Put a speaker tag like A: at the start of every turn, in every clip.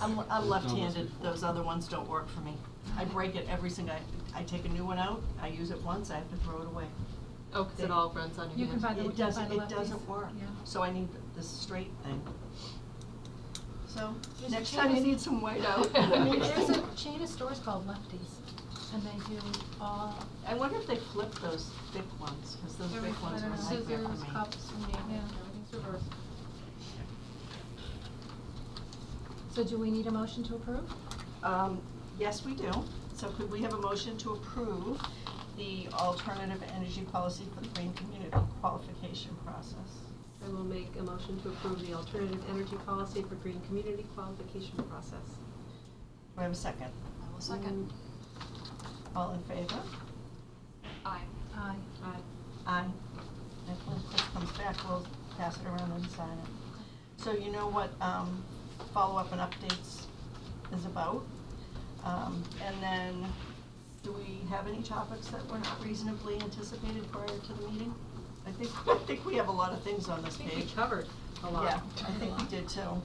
A: I'm, I'm left-handed, those other ones don't work for me. I break it every single, I, I take a new one out, I use it once, I have to throw it away.
B: Oh, 'cause it all runs on your hand.
C: You can buy the, you
A: It
C: can buy
A: doesn't,
C: the
A: it
C: lefties.
A: doesn't work,
C: Yeah.
A: so I need this straight thing. So,
C: There's a
A: next time I
C: chain of-
A: need some white out.
C: There's a chain of stores called Lefties, and they do all,
A: I wonder if they flip those thick ones, cause those
C: every,
A: big
C: I
A: ones are a
C: don't know.
A: nightmare for me.
C: scissors, cups, and yeah, everything's reversed. So do we need a motion to approve?
A: Um, yes, we do. So could we have a motion to approve the alternative energy policy for the Green Community qualification process?
B: I will make a motion to approve the alternative energy policy for green community qualification process.
A: Do I have a second? Mm.
D: I will second.
A: All in favor?
D: Aye.
C: Aye.
B: Aye.
A: Aye. And if when Chris comes back, we'll pass it around and sign it. So you know what, um, follow-up and updates is about. Um, and then, do we have any topics that were not reasonably anticipated prior to the meeting? I think, I think we have a lot of things on
B: I
A: this Mm, page.
B: think we covered a lot.
A: Yeah, I think we did too.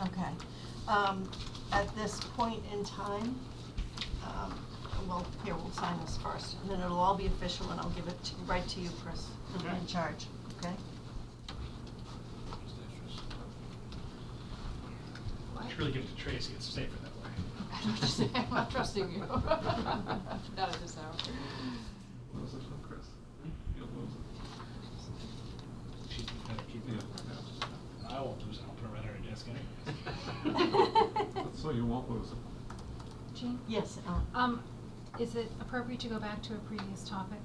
A: Okay. Um, at this point in time, um, well, here, we'll sign this first, and then it'll all be official, and I'll give it to, right to you, Chris, who's
E: Okay.
A: in charge, okay?
E: You should really give it to Tracy, it's safer that way.
D: I don't understand. I'm not trusting you. Not at this hour.
F: What was it from Chris? Yeah, what was
E: She's better keeping it. I won't lose it, I'll put it right on her desk anyway.
F: it? So you won't lose it.
C: Jean?
A: Yes, Ellen?
C: Um, is it appropriate to go back to a previous topic?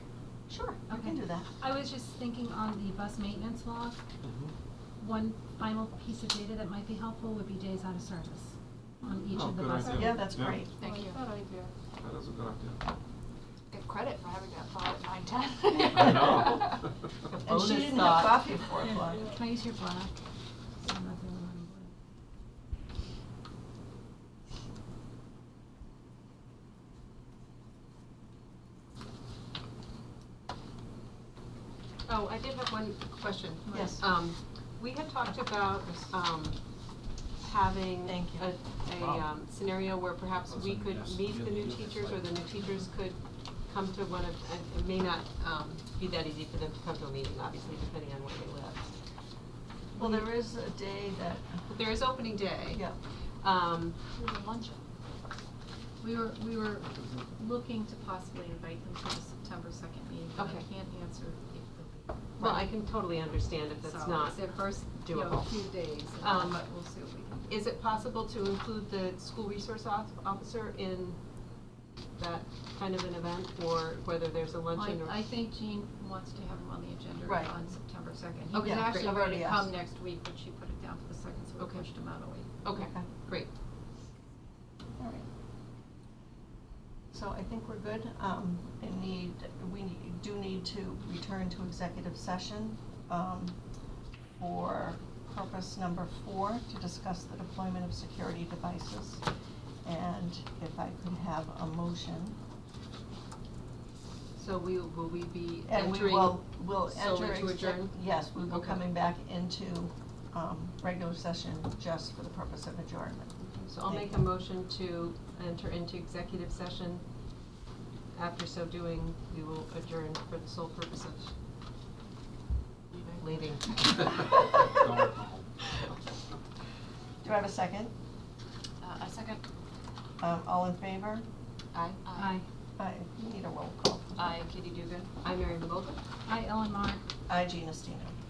A: Sure, I
C: Okay.
A: can do that.
C: I was just thinking on the bus maintenance log,
F: Mm-hmm.
C: one final piece of data that might be helpful would be days out of service on each
F: Oh,
C: of the
F: good
C: buses.
F: idea.
A: Yeah, that's great.
D: Thank you.
F: That is a good idea.
D: Get credit for having that thought at nine ten.
F: I know.
A: And she didn't have coffee before o'clock.
C: Can I use your black? I'm not the only one in
B: Oh, I did have one question.
A: Yes.
B: Um, we had talked about, um, having
A: Thank you.
B: a, a,
E: Wow.
B: um, scenario where perhaps we could
E: Yes,
B: meet the new
E: yes, yes,
B: teachers, or the new
E: right.
B: teachers could come to one of, and it may not, um, be that easy for them to come to a meeting, obviously, depending on where they live.
A: Well, there is a day that,
B: But there is opening day.
A: yeah,
B: Um,
D: Luncheon.
G: We were, we were looking to possibly invite them to the September second meeting, but I
B: Okay.
G: can't answer if they'll be.
B: well, I
G: ready.
B: can totally understand if that's not.
G: So it's their first, you know,
B: doable.
G: few days, and-
B: Um,
G: but we'll see what we can do.
B: Is it possible to include the school resource off- officer in that kind of an event, or whether there's a luncheon or?
G: I, I think Jean wants to have him on the agenda
A: Right. Oh,
G: on September second.
B: Okay,
G: He was
B: great.
G: actually
A: I've
G: ready
A: already
G: to come
A: asked.
G: next week, but she put it down for the second, so
B: Okay.
G: we pushed him out a week.
B: Okay,
A: Okay.
B: great.
A: all right. So I think we're good. Um, I need, we need- do need to return to executive session, um, for purpose number four, to discuss the deployment of security devices. And if I could have a motion,
B: So we, will we be
A: and we
B: entering
A: will, will
B: solely
A: enter.
B: to
A: exec-
B: adjourn?
A: Yes, we will
B: Okay.
A: coming back into, um, regular session just for the purpose of adjournment.
B: So I'll make a motion to enter into executive session. After so doing, we will adjourn for the sole purpose of leaving.
A: Do I have a second?
D: Uh, a second.
A: Um, all in favor?
B: Aye.
C: Aye.
A: I need a roll call.
D: Aye, Katie Dugan.
B: I'm Mary Revolta.
C: Aye, Ellen Mar.
A: I, Gina Stino.